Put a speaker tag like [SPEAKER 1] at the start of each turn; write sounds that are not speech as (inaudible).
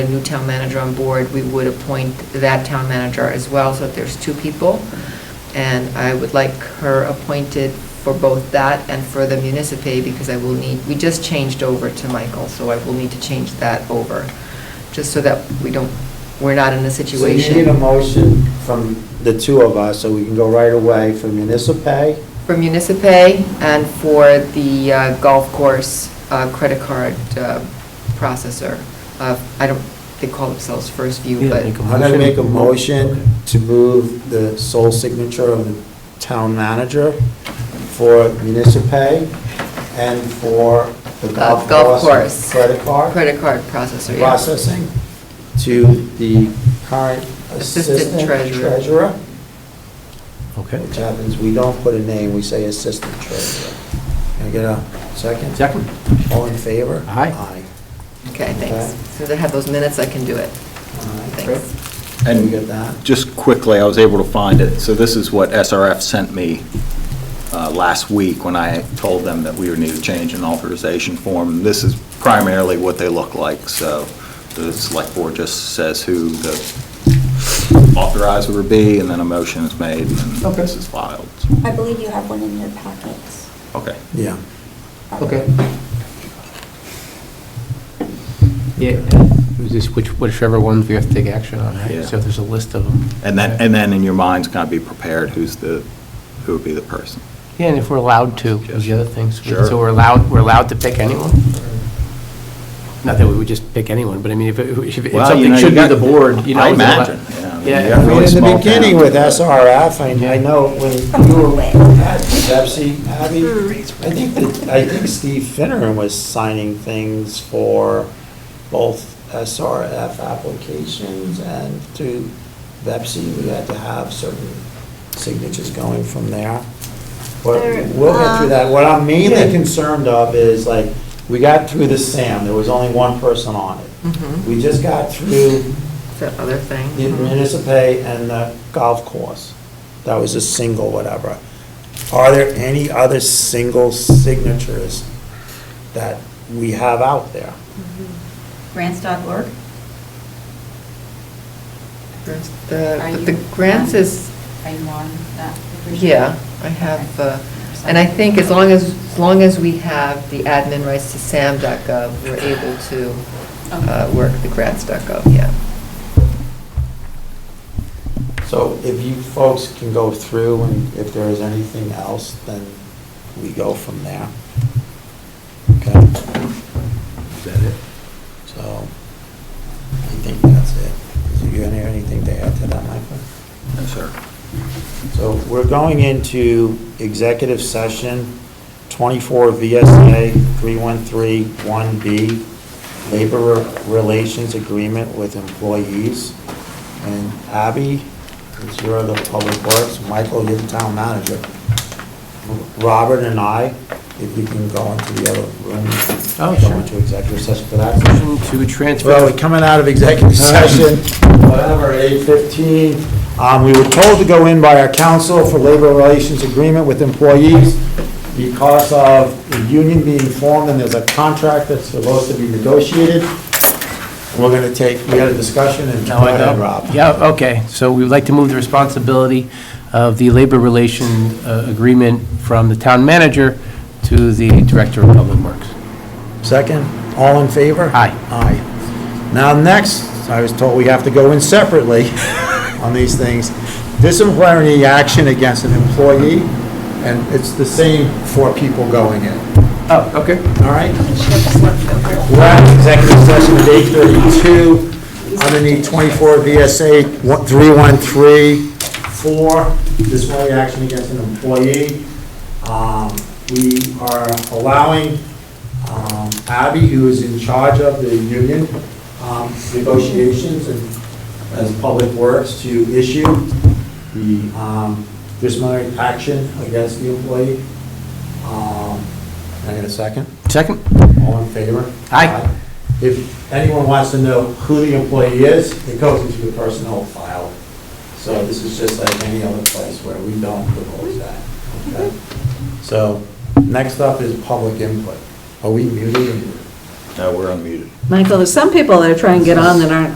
[SPEAKER 1] a new town manager on board, we would appoint that town manager as well, so that there's two people. And I would like her appointed for both that and for the municipal, because I will need, we just changed over to Michael, so I will need to change that over, just so that we don't, we're not in a situation.
[SPEAKER 2] So you need a motion from the two of us, so we can go right away for municipal pay.
[SPEAKER 1] For Municipay and for the uh, golf course uh, credit card uh, processor. Uh, I don't, they call themselves First View,
[SPEAKER 3] Yeah,
[SPEAKER 1] but
[SPEAKER 3] make a
[SPEAKER 2] I'm gonna make a
[SPEAKER 3] Motion.
[SPEAKER 2] motion to move the sole signature of the town manager for municipal pay and for the
[SPEAKER 1] Golf-
[SPEAKER 2] golf
[SPEAKER 1] golf course.
[SPEAKER 2] course credit card
[SPEAKER 1] credit card processor, yeah.
[SPEAKER 2] processing to the current
[SPEAKER 1] Assistant
[SPEAKER 2] assistant
[SPEAKER 1] treasurer.
[SPEAKER 2] treasurer,
[SPEAKER 3] Okay.
[SPEAKER 2] which happens, we don't put a name, we say assistant treasurer. Can I get a second?
[SPEAKER 3] Second?
[SPEAKER 2] All in favor?
[SPEAKER 3] Aye.
[SPEAKER 2] Aye.
[SPEAKER 1] Okay, thanks.
[SPEAKER 2] Okay.
[SPEAKER 1] As soon as I have those minutes, I can do it. Thanks.
[SPEAKER 2] And we
[SPEAKER 4] And
[SPEAKER 2] get that?
[SPEAKER 4] just quickly, I was able to find it. So this is what SRF sent me uh, last week when I told them that we would need to change an authorization form. This is primarily what they look like, so the select board just says who the authorizer would be, and then a motion is made, and then
[SPEAKER 2] Okay.
[SPEAKER 4] this is filed.
[SPEAKER 5] I believe you have one in your packets.
[SPEAKER 4] Okay.
[SPEAKER 2] Yeah.
[SPEAKER 3] Okay. Yeah, it was just which, whichever ones we have to take action on,
[SPEAKER 4] Yeah.
[SPEAKER 3] right? So if there's a list of them.
[SPEAKER 4] And then, and then in your minds, kind of be prepared who's the, who would be the person.
[SPEAKER 3] Yeah, and if we're allowed to, is the other thing. So
[SPEAKER 4] Sure.
[SPEAKER 3] so we're allowed, we're allowed to pick anyone? Not that we would just pick anyone, but I mean, if, it- if if
[SPEAKER 4] Well, you
[SPEAKER 3] something
[SPEAKER 4] know, you
[SPEAKER 3] should be
[SPEAKER 4] got-
[SPEAKER 3] the board, you know.
[SPEAKER 4] I
[SPEAKER 3] it's allowed-
[SPEAKER 4] imagine, yeah, I mean,
[SPEAKER 3] Yeah.
[SPEAKER 4] you
[SPEAKER 2] I
[SPEAKER 3] if we-
[SPEAKER 4] got
[SPEAKER 2] mean,
[SPEAKER 4] really
[SPEAKER 2] in the
[SPEAKER 4] small
[SPEAKER 2] beginning
[SPEAKER 4] town.
[SPEAKER 2] with SRF, I, I know when you were at Pepsi, Abby, I think, that- I think Steve Finneran was signing things for both SRF applications and to Pepsi, we had to have certain signatures going from there. But
[SPEAKER 6] There-
[SPEAKER 2] we'll get through
[SPEAKER 6] uh,
[SPEAKER 2] that. What I'm mainly concerned of is like, we got through the SAM, there was only one person on it.
[SPEAKER 1] Mhm.
[SPEAKER 2] We just got through
[SPEAKER 1] That other thing.
[SPEAKER 2] the municipay and the golf course. That was a single whatever. Are there any other single signatures that we have out there?
[SPEAKER 6] Grants.org?
[SPEAKER 1] Grants- the-
[SPEAKER 6] Are
[SPEAKER 1] But the
[SPEAKER 6] you
[SPEAKER 1] grants
[SPEAKER 6] on-
[SPEAKER 1] is,
[SPEAKER 6] Are you on that?
[SPEAKER 1] yeah, I have, uh, and I think as long as, as long as we have the admin rights to sam.gov, we're able to uh,
[SPEAKER 6] Okay.
[SPEAKER 1] work the grants.gov, yeah.
[SPEAKER 2] So if you folks can go through and if there is anything else, then we go from there. Okay? Is that it? So, I think that's it. Is you gonna have anything to add to that, Michael?
[SPEAKER 4] No, sir.
[SPEAKER 2] So we're going into executive session, 24 VSA 313-1B, labor relations agreement with employees. And Abby, is you're the public works, Michael, you're the town manager. Robert and I, if you can go into the other room.
[SPEAKER 3] Oh,
[SPEAKER 2] Go
[SPEAKER 3] sure.
[SPEAKER 2] into executive session for that.
[SPEAKER 3] Motion to transfer. Uh-huh.
[SPEAKER 2] Well, we're coming out of executive session, whatever, eight fifteen. Um, we were told to go in by our counsel for labor relations agreement with employees because of the union being formed and there's a contract that's supposed to be negotiated. We're gonna take, we had a discussion and.
[SPEAKER 3] Now I
[SPEAKER 2] Go ahead,
[SPEAKER 3] know.
[SPEAKER 2] Rob.
[SPEAKER 3] Yeah, okay, so we'd like to move the responsibility of the labor relation uh, agreement from the town manager to the director of public works.
[SPEAKER 2] Second, all in favor?
[SPEAKER 3] Aye.
[SPEAKER 2] Aye. Now, next, I was told we have to go in separately (laughs) on these things. Disciplinary action against an employee, and it's the same for people going in,
[SPEAKER 3] Oh, okay.
[SPEAKER 2] all right? We're at executive session at 8:32, underneath 24 VSA one- 3134, disciplinary action against an employee. Um, We are allowing um, Abby, who is in charge of the union um, negotiations and as Public Works, to issue the um, disciplinary action against the employee. Um, Can I get a second?
[SPEAKER 3] Second?
[SPEAKER 2] All in favor?
[SPEAKER 3] Aye.
[SPEAKER 2] If anyone wants to know who the employee is, it goes into the personnel file. So this is just like any other place where we don't divulge that. okay? So next up is public input. Are we muted?
[SPEAKER 7] No, we're unmuted.
[SPEAKER 1] Michael, there's some people that are trying to get on that aren't